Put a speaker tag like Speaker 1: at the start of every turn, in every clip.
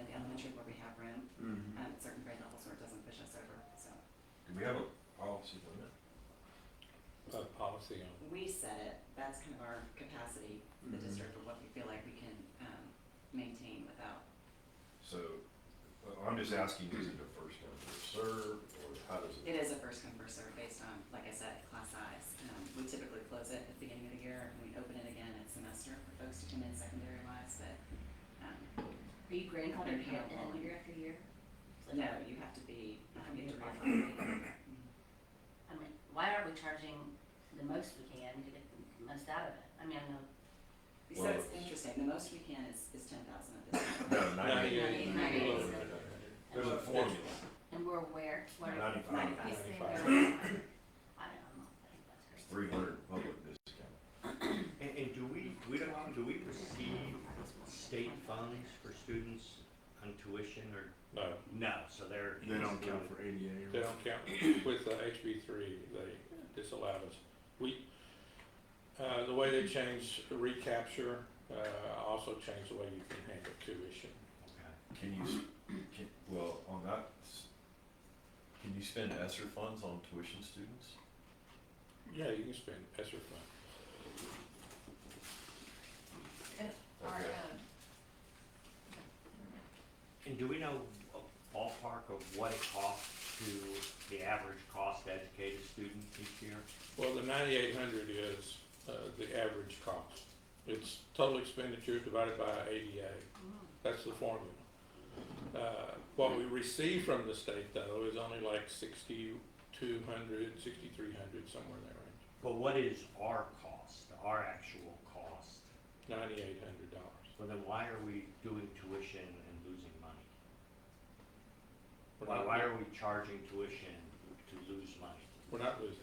Speaker 1: Uh, Mm-hmm.
Speaker 2: We have a policy, don't we?
Speaker 3: a policy on.
Speaker 1: we set it, that's kind of our capacity, the
Speaker 2: Mhm.
Speaker 1: district, of what we feel like we can, um, maintain without.
Speaker 2: So, well, I'm just asking, is it a first come, first serve, or how does it?
Speaker 1: It is a first come, first served based on, like I said, class size. Um, we typically close it at the beginning of the year and we open it again at semester for folks to come in secondary wise, but, um,
Speaker 4: Are you grandfathered yet in year after year? It's like,
Speaker 1: no, you have to be, um, you have to
Speaker 4: Committed by
Speaker 1: reapply.
Speaker 4: I mean, why aren't we charging the most we can to get the most out of it? I mean, I know.
Speaker 1: So it's interesting, the most we can is, is ten thousand at this point.
Speaker 2: No, ninety,
Speaker 4: Ninety-eight.
Speaker 2: there's a formula,
Speaker 4: And we're aware, we're.
Speaker 2: ninety-five,
Speaker 1: Ninety-five.
Speaker 4: Yes, they are. I
Speaker 3: Ninety-five.
Speaker 4: don't know, I think that's her.
Speaker 2: three hundred public discount.
Speaker 5: And, and do we, we don't, do we receive state funds for students on tuition or,
Speaker 3: No,
Speaker 5: no, so they're.
Speaker 2: for ADA.
Speaker 3: they don't count, with the HB three, they disallowed us. We, uh, the way they changed recapture, uh, also changed the way you can handle tuition.
Speaker 5: Okay.
Speaker 2: Can you, s- can, well, on that, s- can you spend ESSER funds on tuition students?
Speaker 3: Yeah, you can spend ESSER fund.
Speaker 4: Oh,
Speaker 2: Okay.
Speaker 4: Mm-hmm.
Speaker 5: And do we know a ballpark of what it costs to, the average cost to educate a student each year?
Speaker 3: Well, the ninety-eight hundred is, uh, the average cost. It's total expenditure divided by ADA.
Speaker 4: Mm.
Speaker 3: That's the formula. Uh, What we receive from the state, though, is only like sixty-two hundred, sixty-three hundred, somewhere in that
Speaker 5: But what is our cost, our actual cost?
Speaker 3: range, ninety-eight hundred dollars.
Speaker 5: Well, then why are we doing tuition and losing money?
Speaker 3: We're
Speaker 5: Why,
Speaker 3: not-
Speaker 5: why are we charging tuition to lose money?
Speaker 3: We're not losing money.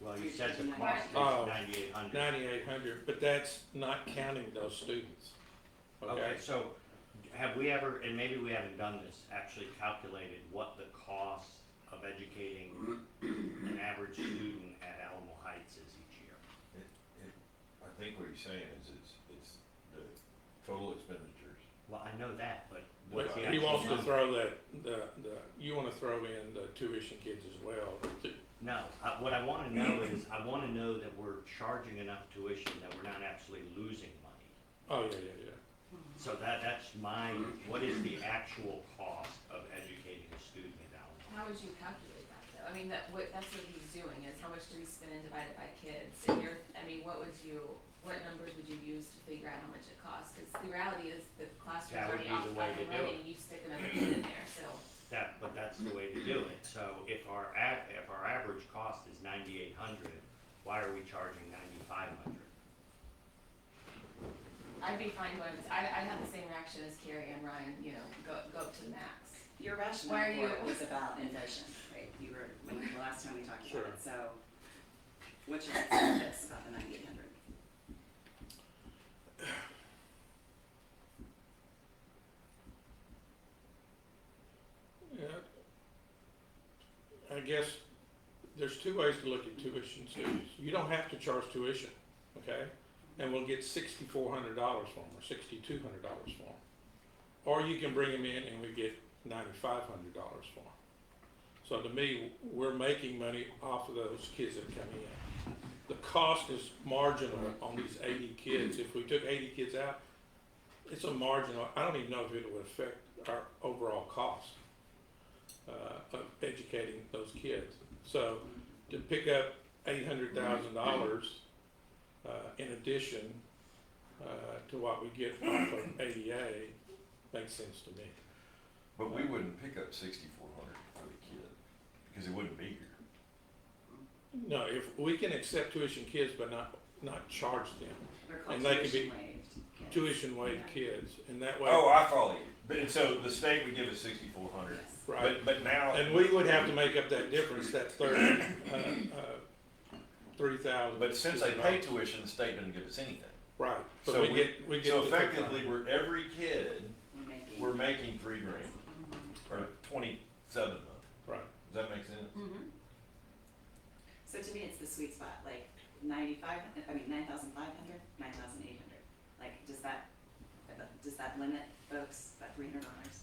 Speaker 5: Well, you said the cost is
Speaker 3: Oh.
Speaker 5: ninety-eight hundred.
Speaker 3: Ninety-eight hundred, but that's not counting those students,
Speaker 5: Okay,
Speaker 3: okay?
Speaker 5: so have we ever, and maybe we haven't done this, actually calculated what the cost of educating an average student at Alamo Heights is each year?
Speaker 2: I think what he's saying is it's, it's the total expenditures.
Speaker 5: Well, I know that, but
Speaker 3: But
Speaker 5: what's the
Speaker 3: he
Speaker 5: actual
Speaker 3: wants to
Speaker 5: number?
Speaker 3: throw that, the, the, you wanna throw in the tuition kids as well, to-
Speaker 5: No, I- what I wanna know is, I wanna know that we're charging enough tuition that we're not actually losing money.
Speaker 3: oh, yeah, yeah, yeah.
Speaker 5: So that, that's my, what is the actual cost of educating a student at Alamo?
Speaker 6: How would you calculate that though? I mean, that, what, that's what he's doing is how much do we spend and divide it by kids? And you're, I mean, what would you, what numbers would you use to figure out how much it costs? Cause the reality is the classroom's
Speaker 5: That would
Speaker 6: already
Speaker 5: be the way
Speaker 6: occupied
Speaker 5: to
Speaker 6: and
Speaker 5: do
Speaker 6: running, you stick another kid in there, so.
Speaker 5: That, but that's the way to do it. So if our, a- if our average cost is ninety-eight hundred, why are we charging ninety-five hundred?
Speaker 6: I'd be fine going, I, I have the same reaction as Carrie and Ryan, you know, go, go up to the max.
Speaker 1: Your
Speaker 6: Why are
Speaker 1: rationale for it
Speaker 6: you-
Speaker 1: was about inflation, right? You were, when, the last time we talked
Speaker 3: Sure.
Speaker 1: about it, so what's your estimate about the ninety-eight hundred?
Speaker 3: Yeah. I guess there's two ways to look at tuition students. You don't have to charge tuition, okay? And we'll get sixty-four hundred dollars for them, or sixty-two hundred dollars for them. Or you can bring them in and we get ninety-five hundred dollars for them. So to me, we're making money off of those kids that come in. The cost is marginal on these eighty kids. If we took eighty kids out, it's a marginal, I don't even know if it would affect our overall cost uh, of educating those kids. So to pick up eight hundred thousand dollars uh, in addition uh, to what we get off of ADA makes sense to me.
Speaker 2: But we wouldn't pick up sixty-four hundred for the kid, because it wouldn't be here.
Speaker 3: No, if we can accept tuition kids but not not charge them
Speaker 1: They're called
Speaker 3: And they could
Speaker 1: tuition
Speaker 3: be-
Speaker 1: waived kids.
Speaker 3: tuition waived kids, and that way,
Speaker 2: Oh, I follow you. But, and so the state would give us sixty-four hundred,
Speaker 1: Yes.
Speaker 3: right?
Speaker 2: but, but now.
Speaker 3: And we would have to make up that difference, that thirty, uh, uh, three thousand.
Speaker 2: But since they pay tuition, the state doesn't give us anything.
Speaker 3: right? But
Speaker 2: so
Speaker 3: we,
Speaker 2: we-
Speaker 3: get we get
Speaker 2: So
Speaker 3: the difference.
Speaker 2: effectively, we're, every kid,
Speaker 1: We're making-
Speaker 2: we're making three grand, or twenty-seven of them.
Speaker 3: right?
Speaker 2: Does that make sense?
Speaker 4: Mhm.
Speaker 1: So to me, it's the sweet spot, like ninety-five, I mean, nine thousand five hundred, nine thousand eight hundred. Like, does that, does that limit folks, that three hundred dollars?